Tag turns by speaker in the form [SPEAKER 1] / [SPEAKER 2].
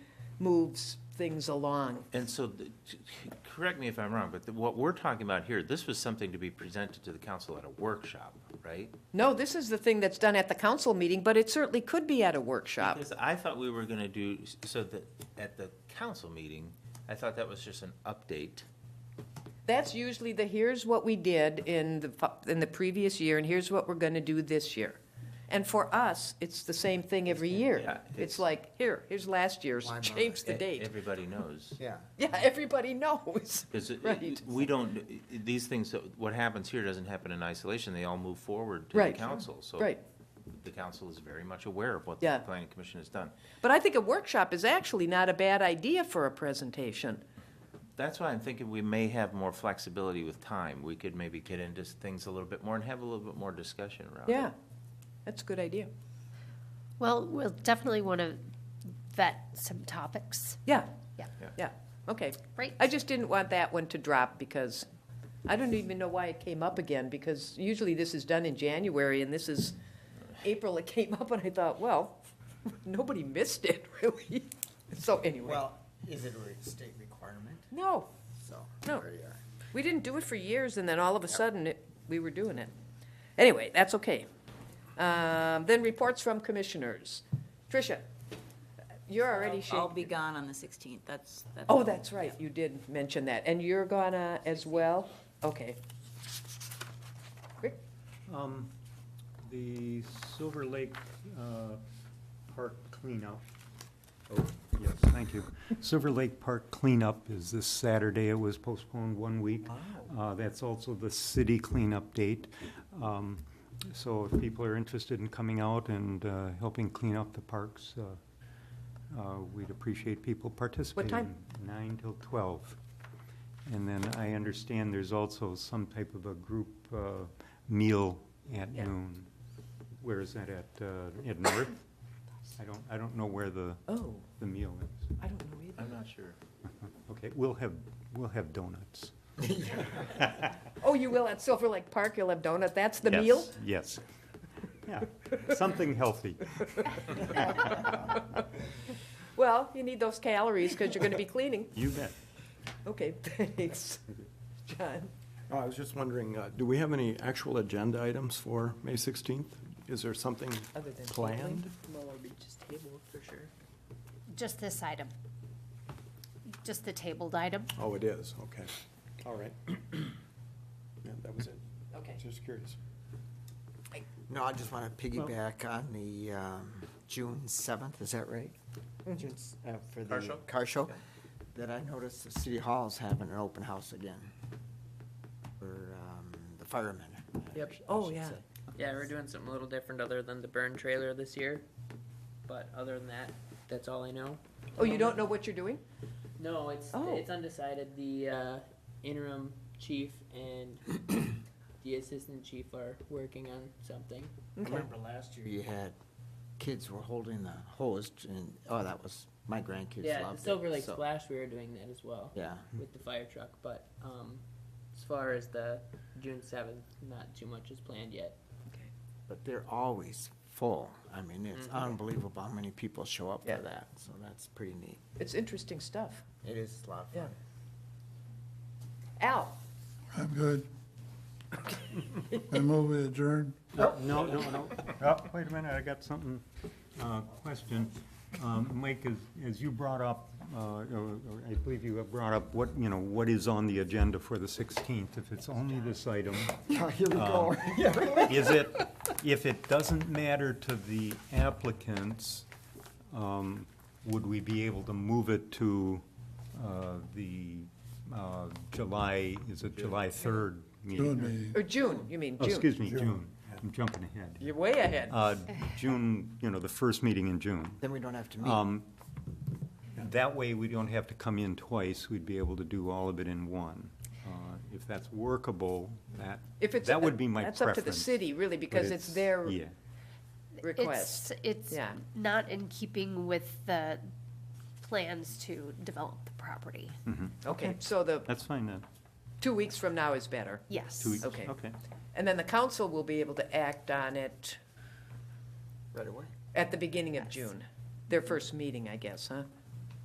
[SPEAKER 1] moves things along.
[SPEAKER 2] And so, the- t- correct me if I'm wrong, but the- what we're talking about here, this was something to be presented to the council at a workshop, right?
[SPEAKER 1] No, this is the thing that's done at the council meeting, but it certainly could be at a workshop.
[SPEAKER 2] Because I thought we were gonna do, so that, at the council meeting, I thought that was just an update.
[SPEAKER 1] That's usually the, here's what we did in the, fu- in the previous year, and here's what we're gonna do this year. And for us, it's the same thing every
[SPEAKER 2] Yeah,
[SPEAKER 1] year.
[SPEAKER 2] it's-
[SPEAKER 1] It's like, here, here's last year's,
[SPEAKER 3] Why not?
[SPEAKER 1] change the
[SPEAKER 2] E-
[SPEAKER 1] date.
[SPEAKER 2] Everybody knows.
[SPEAKER 3] Yeah.
[SPEAKER 1] Yeah, everybody knows.
[SPEAKER 2] Because
[SPEAKER 1] Right.
[SPEAKER 2] we don't, e, these things, that- what happens here doesn't happen in isolation, they all move forward to the
[SPEAKER 1] Right.
[SPEAKER 2] council. So
[SPEAKER 1] Right.
[SPEAKER 2] The council is very much aware of what
[SPEAKER 1] Yeah.
[SPEAKER 2] the planning commission has done.
[SPEAKER 1] But I think a workshop is actually not a bad idea for a presentation.
[SPEAKER 2] That's why I'm thinking we may have more flexibility with time. We could maybe get into things a little bit more and have a little bit more discussion around it.
[SPEAKER 1] Yeah, that's a good idea.
[SPEAKER 4] Well, we'll definitely want to vet some topics. Uh,
[SPEAKER 1] Yeah.
[SPEAKER 4] Yeah.
[SPEAKER 2] Yeah.
[SPEAKER 1] Yeah, okay.
[SPEAKER 4] Great.
[SPEAKER 1] I just didn't want that one to drop because I don't even know why it came up again, because usually this is done in January and this is April it came up and I thought, well, nobody missed it really. So anyway,
[SPEAKER 3] Well, is it a re- state requirement?
[SPEAKER 1] no,
[SPEAKER 3] So.
[SPEAKER 1] No.
[SPEAKER 3] there you are.
[SPEAKER 1] we didn't do it for years and then all of a sudden it, we were doing it. Anyway, that's okay. Um, then reports from commissioners. Tricia, you're already shaking.
[SPEAKER 5] I'll be gone on the 16th, that's. that's
[SPEAKER 1] Oh,
[SPEAKER 5] all.
[SPEAKER 1] that's right, you did mention that, and you're gonna as well? Okay. Rick?
[SPEAKER 6] Um, the Silver Lake, uh, Park cleanup. Oh, yes, thank you. Silver Lake Park cleanup is this Saturday. It was postponed one week. Uh, that's also the city cleanup date. Um, so if people are interested in coming out and, uh, helping clean up the parks, uh, uh, we'd appreciate people participating.
[SPEAKER 1] time?
[SPEAKER 6] Nine till twelve. And then I understand there's also some type of a group uh, meal at
[SPEAKER 1] Yeah.
[SPEAKER 6] noon. Where is that at, uh, at North? I don't, I don't know where the,
[SPEAKER 1] Oh,
[SPEAKER 6] the meal is.
[SPEAKER 1] I don't know either.
[SPEAKER 2] I'm not sure.
[SPEAKER 6] Okay, we'll have, we'll have donuts.
[SPEAKER 1] Oh, you will at Silver Lake Park, you'll have donut, that's the meal?
[SPEAKER 6] Yes, yes. Yeah, something healthy.
[SPEAKER 1] Well, you need those calories, because you're gonna be cleaning.
[SPEAKER 6] You bet.
[SPEAKER 1] Okay, thanks. John?
[SPEAKER 7] Oh, I was just wondering, uh, do we have any actual agenda items for May 16th? Is there something
[SPEAKER 1] Other than
[SPEAKER 7] planned?
[SPEAKER 5] Lower Reaches table for sure.
[SPEAKER 4] Just this item. Just the tabled item.
[SPEAKER 7] Oh, it is, okay. All right. Yeah, that was it.
[SPEAKER 1] Okay.
[SPEAKER 7] Just curious.
[SPEAKER 3] No, I just want to piggyback on the um, June seventh, is that right? June s- uh, For the
[SPEAKER 2] Car show?
[SPEAKER 3] Car show, that I noticed the city hall's having an open house again for um, the firemen. I
[SPEAKER 5] Yep.
[SPEAKER 3] should- I
[SPEAKER 1] Oh,
[SPEAKER 3] should
[SPEAKER 1] yeah.
[SPEAKER 3] say.
[SPEAKER 8] Yeah, we're doing something a little different other than the burn trailer this year. But other than that, that's all I know.
[SPEAKER 1] Oh, you don't know what you're doing?
[SPEAKER 8] No, it's
[SPEAKER 1] Oh.
[SPEAKER 8] it's undecided. The uh, interim chief and the assistant chief are working on something.
[SPEAKER 3] I remember last year you had, kids were holding the hose and, oh, that was, my grandkids loved it.
[SPEAKER 8] yeah, the Silver Lake
[SPEAKER 3] so-
[SPEAKER 8] Splash, we were doing that as well
[SPEAKER 3] Yeah.
[SPEAKER 8] with the fire truck. But um, as far as the June seventh, not too much is planned yet.
[SPEAKER 3] But they're always full. I mean, it's unbelievable how many people show up
[SPEAKER 1] Yeah.
[SPEAKER 3] for that, so that's pretty neat.
[SPEAKER 1] It's interesting stuff.
[SPEAKER 3] It is a lot of
[SPEAKER 1] Yeah.
[SPEAKER 3] fun.
[SPEAKER 1] Al?
[SPEAKER 9] I'm good. I move we adjourn.
[SPEAKER 6] No, no, no. Oh, wait a minute, I got something, uh, question. Um, Mike, as, as you brought up, uh, or or I believe you have brought up what, you know, what is on the agenda for the sixteenth, if it's only this item. Um,
[SPEAKER 3] Here we go.
[SPEAKER 6] Is it, if it doesn't matter to the applicants, um, would we be able to move it to, uh, the, uh, July, is it July third meeting?
[SPEAKER 9] Doing meeting.
[SPEAKER 1] Or June, you mean,
[SPEAKER 6] Oh,
[SPEAKER 1] June?
[SPEAKER 6] excuse me, June. I'm jumping ahead.
[SPEAKER 1] You're way ahead.
[SPEAKER 6] Uh, June, you know, the first meeting in June.
[SPEAKER 3] Then we don't have to meet.
[SPEAKER 6] Um, That way, we don't have to come in twice, we'd be able to do all of it in one. Uh, If that's workable, that,
[SPEAKER 1] If it's-
[SPEAKER 6] that would be my preference.
[SPEAKER 1] That's up to the city, really,
[SPEAKER 6] but
[SPEAKER 1] because it's their
[SPEAKER 6] Yeah,
[SPEAKER 1] request.
[SPEAKER 4] It's, it's
[SPEAKER 1] Yeah.
[SPEAKER 4] not in keeping with the plans to develop the property.
[SPEAKER 1] Okay, so the,
[SPEAKER 6] that's fine then,
[SPEAKER 1] two weeks from now is better.
[SPEAKER 4] Yes.
[SPEAKER 6] two weeks,
[SPEAKER 1] Okay.
[SPEAKER 6] okay.
[SPEAKER 1] And then the council will be able to act on it
[SPEAKER 3] Right away.
[SPEAKER 1] at the beginning of June, their first meeting, I guess, huh?